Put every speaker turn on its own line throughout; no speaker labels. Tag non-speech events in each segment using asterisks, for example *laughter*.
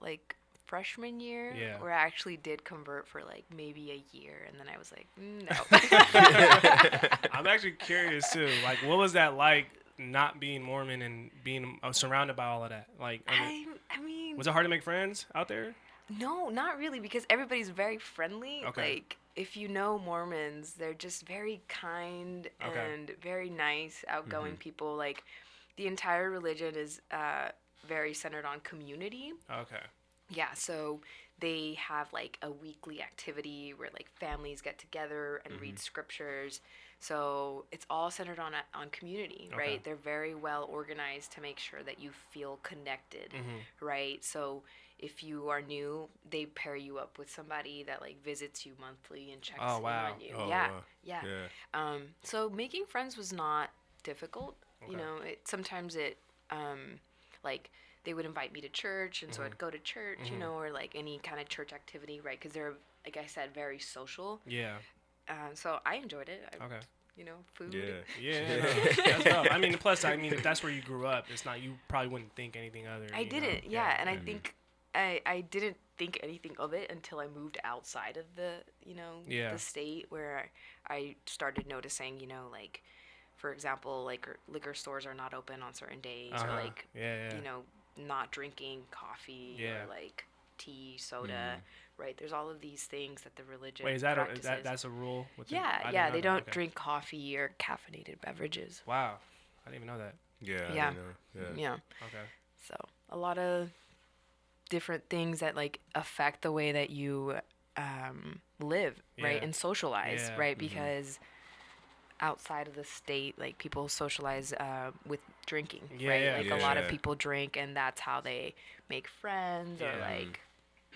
like freshman year
Yeah.
where I actually did convert for like maybe a year and then I was like,
*laughs*
*laughs* "Mm, no.
I'm actually curious too. Like, what was that like not being Mormon and being uh, surrounded by all of that? Like, I mean,
I, I mean,
was it hard to make friends out there?
no, not really because everybody's very friendly.
Okay.
Like if you know Mormons, they're just very kind
Okay. Mm-hmm.
and very nice, outgoing people. Like the entire religion is uh, very centered on community.
Okay.
Yeah, so they have like a weekly activity where like families get together and
Mm-hmm.
read scriptures. So it's all centered on a, on community,
Okay.
right? They're very well organized to make sure that you feel connected,
Mm-hmm.
right? So if you are new, they pair you up with somebody that like visits you monthly and checks
Oh,
in
wow.
on you.
Oh,
yeah,
wow.
yeah.
Yeah.
Um, so making friends was not difficult.
Okay.
You know, it, sometimes it, um, like they would invite me to church, and so I'd go to church, you know, or like any kind of church activity, right? Because they're, like I said, very social.
Yeah.
Um, so I enjoyed it. I,
Okay.
You know, food.
Yeah.
Oh. Yeah. no, that's tough. I mean, plus, I mean, if that's where you grew up, it's not you probably wouldn't think anything other.
I
you know?
didn't, yeah, and I think I, I didn't think anything of it until I moved outside of the you know
Yeah.
the state where I started noticing you know like for example like r- liquor stores are not open on certain days
Uh-huh.
or like
yeah, yeah.
you know not drinking coffee
Yeah. Mm-hmm.
or like tea soda right there's all of these things that the religion
Wait, is that a, is
practices.
that that's a rule? With the- I
yeah
did
yeah
not
they
know.
don't
Okay.
drink coffee or caffeinated beverages
Wow, I didn't even know that.
Yeah. I
Yeah.
know. Yeah.
yeah
Okay.
So a lot of different things that like affect the way that you um, live, right,
Yeah.
and socialize,
Yeah. Mm-hmm.
right, because outside of the state, like people socialize uh, with drinking,
Yeah,
right?
yeah.
Like a lot of
Yeah.
people drink, and that's how they make friends or
Yeah.
like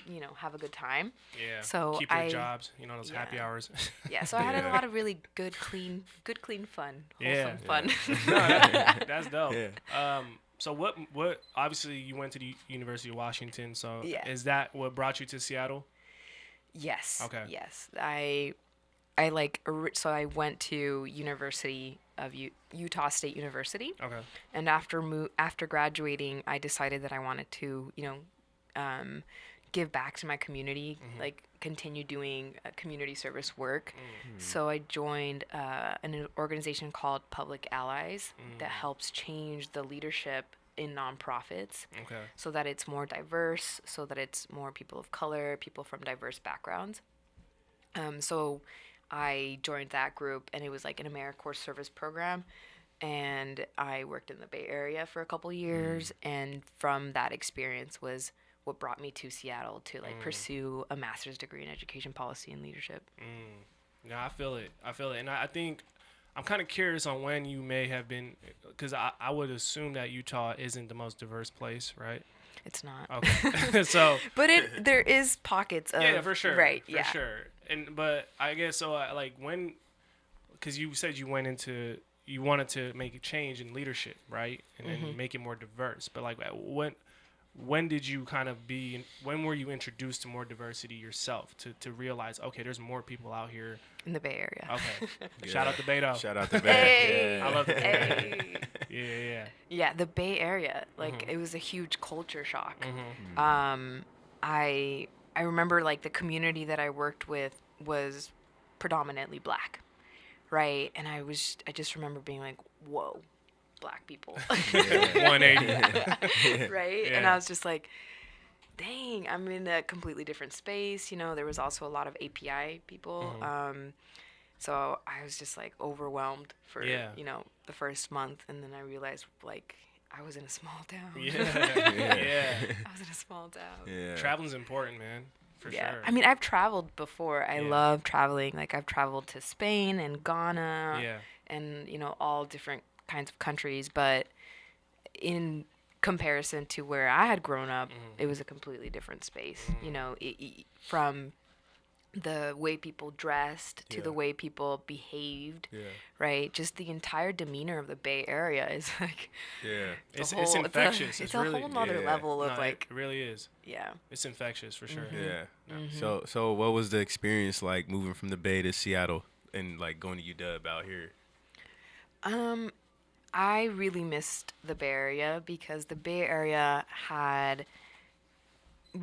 you know have a good time.
Yeah.
So
keep your
I-
jobs. You know those happy
yeah.
hours. *laughs*
Yeah. So I had a
Yeah.
lot of really good, clean, good, clean fun,
Yeah.
wholesome fun. *laughs*
no, that, that's dope.
Yeah.
Um, so what? What? Obviously, you went to the University of Washington. So
Yeah.
is that what brought you to Seattle?
Yes.
Okay.
Yes, I, I like ori- so I went to University of U- Utah State University,
Okay.
and after mo- after graduating, I decided that I wanted to you know, um, give back to my community, like continue doing uh, community service work. So I joined uh, an organization called Public Allies that helps change the leadership in nonprofits
Okay.
so that it's more diverse, so that it's more people of color, people from diverse backgrounds. Um, so I joined that group, and it was like an AmeriCorps service program. And I worked in the Bay Area for a couple years,
Mm.
and from that experience was what brought me to Seattle to
Mm.
like pursue a master's degree in education policy and leadership.
Mm. No, I feel it. I feel it, and I, I think I'm kind of curious on when you may have been, because I, I would assume that Utah isn't the most diverse place, right?
It's not,
Okay. *laughs* so
but
*laughs*
it there is pockets of
Oh. yeah, for sure,
right,
for
yeah,
sure. And but I guess so. uh, Like when, because you said you went into you wanted to make a change in leadership, right, and,
Mm-hmm.
and make it more diverse. But like at when. When did you kind of be? When were you introduced to more diversity yourself to, to realize okay, there's more people out here.
in the Bay Area.
Okay,
*laughs*
shout out to
Yeah.
Beto.
Shout out to
Hey.
Bay.
I love the Bay Area.
Hey.
Yeah, yeah, yeah.
Yeah, the Bay Area. Like it was a huge culture shock. Um, I I remember like the community that I worked with was predominantly black, right? And I was I just remember being like, whoa, black people, *laughs*
Yeah.
180. *laughs*
right? And
Yeah.
I was just like. Dang, I'm in a completely different space. You know, there was also a lot of API people.
Mm-hmm.
Um, so I was just like overwhelmed for,
Yeah.
you know, the first month. And then I realized like I was in a small town.
yeah. yeah.
*laughs* I was in a small town. Yeah.
Yeah.
Traveling's important, man. For sure.
I mean, I've traveled before. I
Yeah.
love traveling. Like I've traveled to Spain and Ghana
yeah.
and, you know, all different kinds of countries, but in comparison to where I had grown up,
Mm-hmm.
it was a completely different space. You know, i i from the way people dressed to the
Yeah.
way people behaved,
Yeah.
right? Just the entire demeanor of the Bay Area *laughs* is like
Yeah.
a
It's,
whole,
it's
a-
infectious.
It's,
It's,
a
really,
whole nother
yeah.
level
no,
of
it-
like, Mm-hmm.
it really is.
yeah.
It's infectious for sure.
Yeah. So so what was the experience like moving from the Bay to Seattle and like going to UW out here?
I really missed the Bay Area because the Bay Area had